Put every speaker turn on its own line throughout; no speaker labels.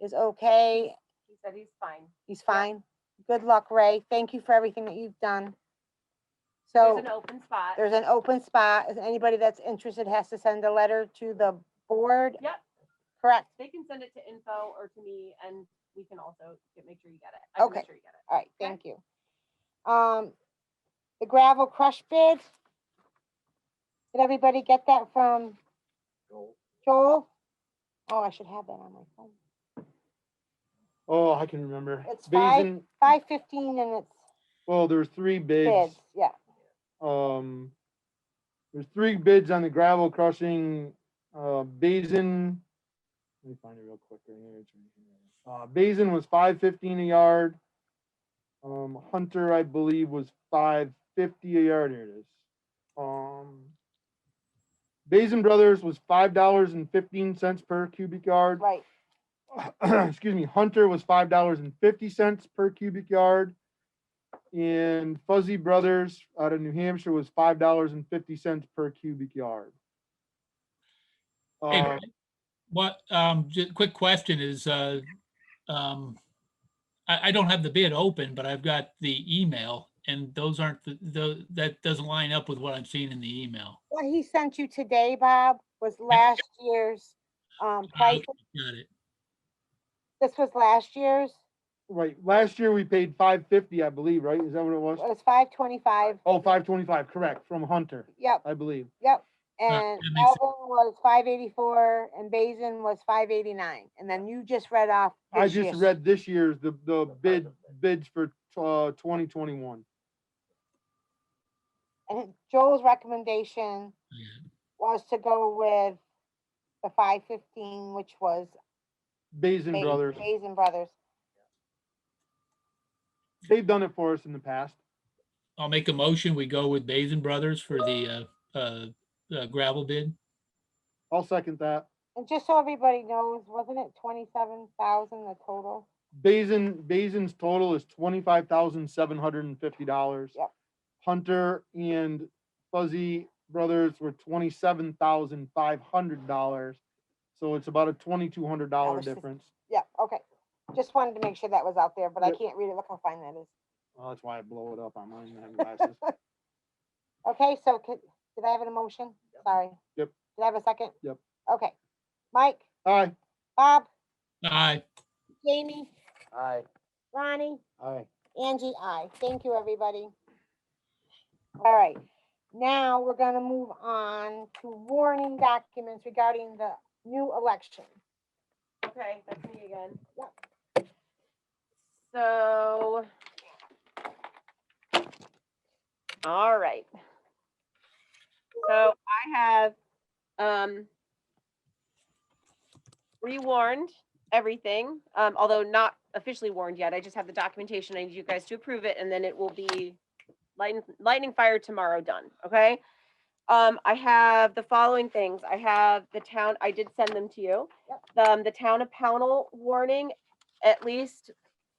is okay.
He said he's fine.
He's
Yeah.
fine. Good luck, Ray. Thank you for everything that you've done.
There's
So
an open spot.
there's an open spot. Is Anybody that's interested has to send a letter to the board,
Yep,
correct?
they can send it to info or to me and we can also get, make sure you get it. I can
Okay.
make sure you get it.
All right,
Okay.
thank you. Um, the gravel crush bid. Did everybody get that from Joel? Oh, I should have that on my phone.
Oh, I can remember.
It's five-
Basin,
Five fifteen and it's
well, there were three bids.
bids, yeah.
Um, there's three bids on the gravel crushing, uh, Basin. Let me find it real quick. right here, it's right here. Uh, Basin was five fifteen a yard. Um, Hunter, I believe, was five fifty a yard. Here it is. Um, Basin Brothers was five dollars and fifteen cents per cubic yard.
Right,
excuse me, Hunter was five dollars and fifty cents per cubic yard. And Fuzzy Brothers out of New Hampshire was five dollars and fifty cents per cubic yard.
Hey,
Uh,
What, um, just quick question is, uh, um, I, I don't have the bid open, but I've got the email and those aren't the, the, that doesn't line up with what I'm seeing in the email.
what he sent you today, Bob, was last year's, um, price,
Got it.
this was last year's,
right, last year we paid five fifty, I believe, right? Is that what it
it
was?
was five twenty-five,
Oh, five twenty-five, correct, from Hunter,
yep,
I believe.
yep.
that
And
makes sense.
Melvin was five eighty-four and Basin was five eighty-nine, and then you just read off.
I
this
just
year's.
read this year's, the, the bid, bids for, uh, twenty twenty-one.
And Joel's recommendation
Yeah.
was to go with the five fifteen, which was
Basin
Ba-
Brothers,
Basin Brothers.
they've done it for us in the past.
I'll make a motion. We go with Basin Brothers for the, uh, uh, uh, gravel bid.
I'll second that.
And just so everybody knows, wasn't it twenty-seven thousand the total?
Basin, Basin's total is twenty-five thousand seven hundred and fifty dollars.
Yep.
Hunter and Fuzzy Brothers were twenty-seven thousand five hundred dollars. So it's about a twenty-two hundred dollar
Dollars.
difference.
Yeah, okay. Just wanted to make sure that was out there, but I
Yep.
can't read it. Look how fine that is.
Well, that's why I blow it up on mine. I have glasses.
Okay, so could, did I have an motion? Sorry.
Yep.
Did I have a second?
Yep.
Okay. Mike,
Aye.
Bob,
Aye.
Jamie,
Aye.
Ronnie?
Aye.
Angie, I Thank you, everybody. All right, now we're gonna move on to warning documents regarding the new election.
Okay, that's me again.
Yep.
So. All right. So I have, um, rewarned everything, um, although not officially warned yet. I just have the documentation. I need you guys to approve it and then it will be lightning, lightning fire tomorrow done, okay? Um, I have the following things. I have the town, I did send them to you um, the town of Pownell warning, at least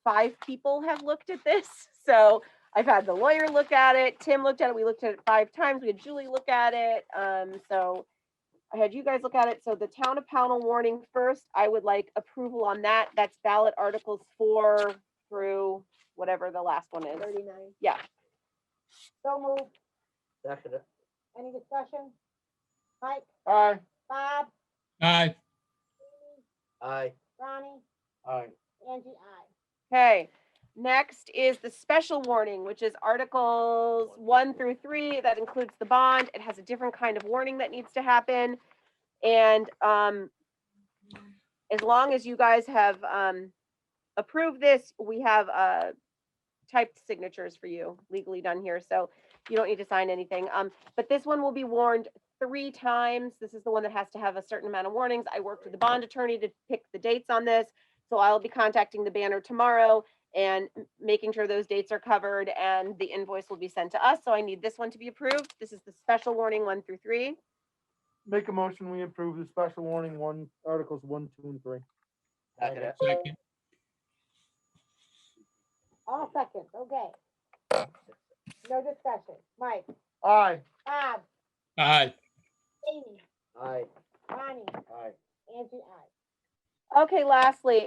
five people have looked at this. So I've had the lawyer look at it, Tim looked at it, we looked at it five times, we had Julie look at it, um, so I had you guys look at it. So the town of Pownell warning first, I would like approval on that. That's ballot articles four through whatever the last one is.
Thirty-nine.
Yeah.
So move,
Second it.
any discussion? Mike,
Aye.
Bob,
Aye.
Aye.
Ronnie,
Aye.
Angie, I.
Okay, next is the special warning, which is Articles one through three. That includes the bond. It has a different kind of warning that needs to happen. And um, as long as you guys have um, approved this, we have uh, typed signatures for you legally done here, so you don't need to sign anything. Um, but this one will be warned three times. This is the one that has to have a certain amount of warnings. I worked with the bond attorney to pick the dates on this. So I'll be contacting the banner tomorrow and m- making sure those dates are covered and the invoice will be sent to us. So I need this one to be approved. This is the special warning one through three.
Make a motion, we approve the special warning one, articles one, two, and three.
Second it.
Second.
All seconds, okay. No discussion. Mike,
Aye.
Bob,
Aye.
Jamie,
Aye.
Ronnie,
Aye.
Angie, I.
Okay, lastly,